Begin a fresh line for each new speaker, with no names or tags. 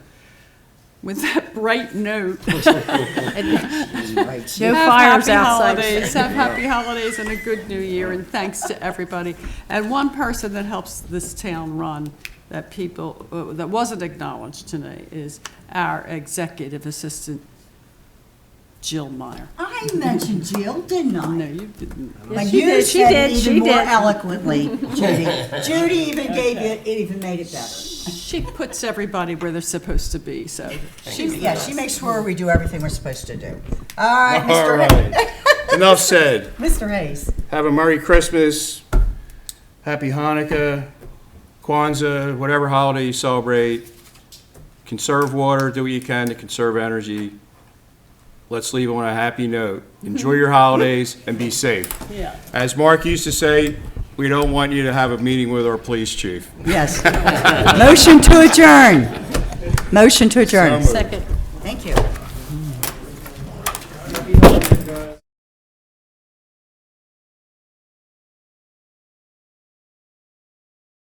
with that bright note.
No
Have
fires
happy
outside.
holidays, Have happy holidays and a good new year, and thanks to everybody. And one person that helps this town run, that people, uh, that wasn't acknowledged tonight, is our executive assistant, Jill Meyer.
I mentioned Jill, didn't
No,
I?
you didn't.
But
she
you
did, she
said
did,
even
she
more
did.
eloquently, Judy. Judy even gave you, it even made it better.
She puts everybody where they're supposed to be, so she's
Yeah, she makes sure we do everything we're supposed to do. All right,
All
Mr. Hay-
right. Enough said.
Mr. Hayes.
Have a Merry Christmas, Happy Hanukkah, Kwanzaa, whatever holiday you celebrate. Conserve water, do what you can to conserve energy. Let's leave on a happy note. Enjoy your holidays and be safe.
Yeah.
As Mark used to say, we don't want you to have a meeting with our police chief.
Yes. Motion to adjourn. Motion to adjourn.
moved.
Second. Thank you.